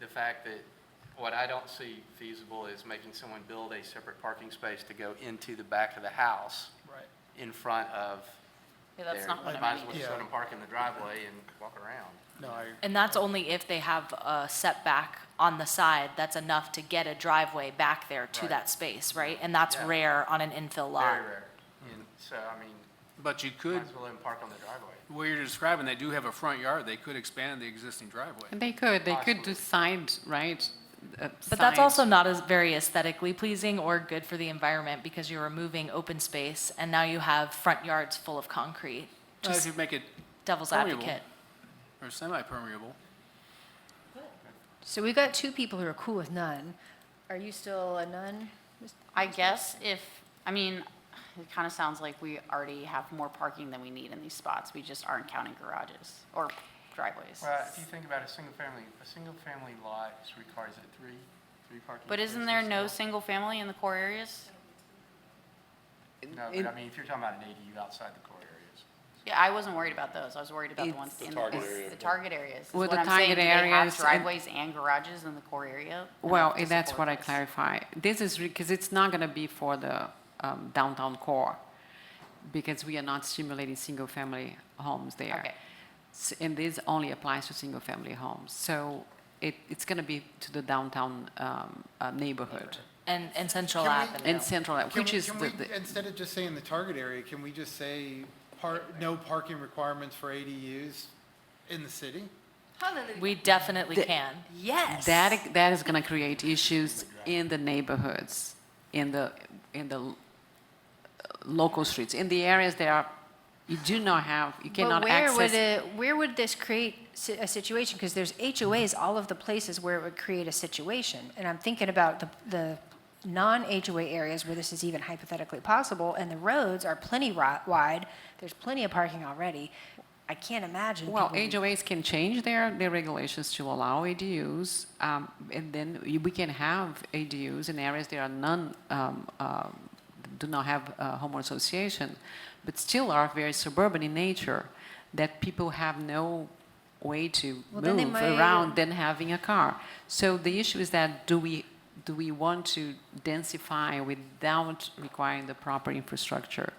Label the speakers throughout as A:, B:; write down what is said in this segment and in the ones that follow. A: the fact that what I don't see feasible is making someone build a separate parking space to go into the back of the house
B: Right.
A: in front of
C: Yeah,
A: their,
C: that's not what
A: might
C: I
A: as
C: mean.
A: well
B: mean.
A: just let
B: Yeah.
A: them park in the driveway and walk around.
B: No, I,
C: And that's only if they have a setback on the side that's enough to get a driveway back there to
A: Right.
C: that space, right? And that's
A: Yeah.
C: rare on an infill lot.
A: Very rare. And so, I mean,
D: But you
A: might
D: could,
A: as well let them park on the driveway.
D: where you're describing, they do have a front yard, they could expand the existing driveway.
E: And They could, they could
A: Possibly.
E: do side, right? Uh,
C: But that's
E: side.
C: also not as very aesthetically pleasing or good for the environment because you're removing open space and now you have front yards full of concrete.
D: Uh, If
C: Just
D: you make it
C: devil's
D: permeable.
C: advocate.
D: or semi-permeable,
F: So we've got two people who are cool with none. Are you still a nun?
G: I guess if, I mean, it kind of sounds like we already have more parking than we need in these spots. We just aren't counting garages or driveways.
A: Well, if you think about a single family, a single family lot is requires it three, three parking.
G: But isn't there
A: spaces
G: no
A: still?
G: single family in the core areas?
A: No, but I mean, if you're talking about an ADU outside the core areas.
G: Yeah, I wasn't worried about those. I was worried about the ones in the, the target areas. is
E: Well, the
G: what I'm saying.
E: target
G: Do they have
E: areas and-
G: Driveways and garages in the core area?
E: Well,
G: enough to
E: that's
G: support
E: what I
G: this?
E: clarify. This is, because it's not going to be for the um, downtown core, because we are not stimulating single-family homes there.
G: Okay.
E: S- And this only applies to single-family homes. So it, it's going to be to the downtown um, uh, neighborhood
C: And, and Central
H: Can we-
C: Avenue.
E: and central,
H: Can
E: which
H: we-
E: is
H: can
E: the,
H: we-
E: the-
H: Instead of just saying the target area, can we just say par, no parking requirements for ADUs in the city?
C: We definitely
E: The-
C: can.
E: that, that is going to create issues in the neighborhoods, in the, in the uh, local streets, in the areas that are, you do not have, you cannot
F: but where
E: access.
F: would it, where would this create si- a situation? Because there's HOAs, all of the places where it would create a situation. And I'm thinking about the, the non-HOA areas where this is even hypothetically possible, and the roads are plenty ri- wide. There's plenty of parking already. I can't imagine.
E: Well,
F: people-
E: HOAs can change their, their regulations to allow ADUs, um, and then y- we can have ADUs in areas that are none, um, um, do not have a homeowner association, but still are very suburban in nature, that people have no way to
F: Well, then they
E: move
F: might-
E: around than having a car. So the issue is that do we, do we want to densify without requiring the proper infrastructure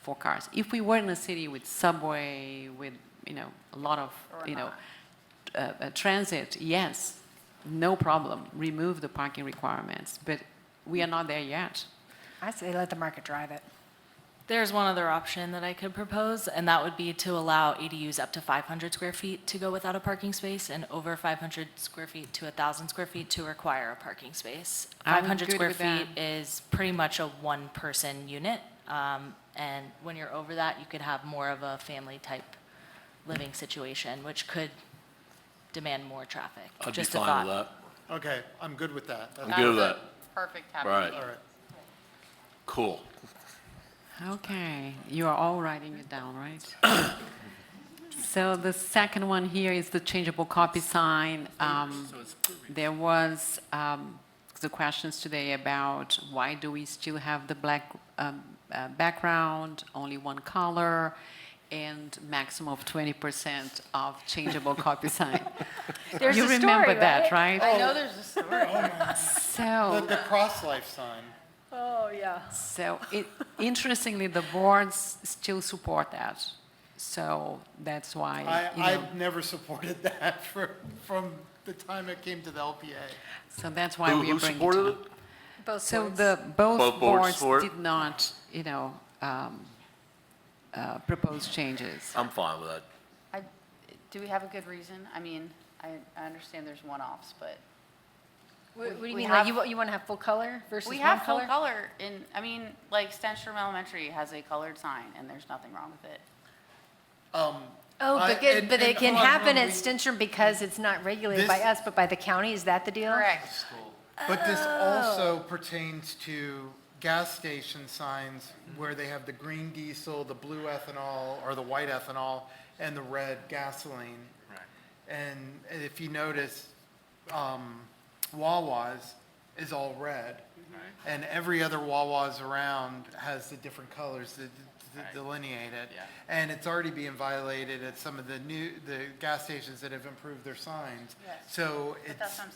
E: for cars? If we were in a city with subway, with, you know, a lot of, you know, uh, uh, transit, yes, no problem, remove the parking requirements, but we are not there yet.
F: I say let the market drive it.
C: There's one other option that I could propose, and that would be to allow ADUs up to 500 square feet to go without a parking space, and over 500 square feet to 1,000 square feet to require a parking space.
E: I'm
C: 500
E: good
C: square
E: with that.
C: feet is pretty much a one-person unit, um, and when you're over that, you could have more of a family-type living situation, which could demand more traffic.
I: I'd be
C: Just a
I: fine with
C: thought.
I: that.
H: Okay, I'm good with that. That's-
I: I'm good with
G: That's
I: that.
G: a Perfect
I: All right,
G: happy
H: All right.
I: cool.
E: Okay, you are all writing it down, right? So the second one here is the changeable copy sign. Um, There was um, the questions today about why do we still have the black um, uh, background, only one color, and maximum of 20% of changeable copy sign.
F: There's
E: You
F: a story,
E: remember that,
F: right?
E: right?
G: I know there's a story.
H: The,
E: So,
H: the cross-life sign.
F: Oh, yeah.
E: so it, interestingly, the boards still support that. So that's why,
H: I,
E: you know.
H: I've never supported that for, from the time it came to the LPA.
E: So that's why
I: Who,
E: we are
I: who
E: bringing
I: supported it?
E: up.
F: Both
E: So
F: sides.
E: the, both
I: Both boards
E: boards
I: support?
E: did not, you know, um, uh, propose changes.
I: I'm fine with that.
G: I- Do we have a good reason? I mean, I, I understand there's one-offs, but
F: What what do you
G: we
F: mean, like,
G: have-
F: you, wa- you want to have full color versus
G: we
F: one
G: have full
F: color?
G: color in, I mean, like Stenstrom Elementary has a colored sign and there's nothing wrong with it.
H: Um,
F: Oh,
H: I-
F: but good,
H: and-
F: but it
H: and
F: can
H: hold on,
F: happen
H: hold on,
F: at
H: we-
F: Stinson because it's not regulated
H: This-
F: by us, but by the county, is that the deal?
G: Correct.
H: But this also
A: Oh.
H: pertains to gas station signs where they have the green diesel, the blue ethanol, or the white ethanol, and the red gasoline.
A: Right.
H: And if you notice, um, Wawa's is all red. And every other Wawa's around has the different colors that d- d-
A: Right.
H: delineate it.
A: Yeah.
H: And it's already being violated at some of the new, the gas stations that have improved their signs.
G: Yes.
H: So
G: But
H: it's.
G: that's what I'm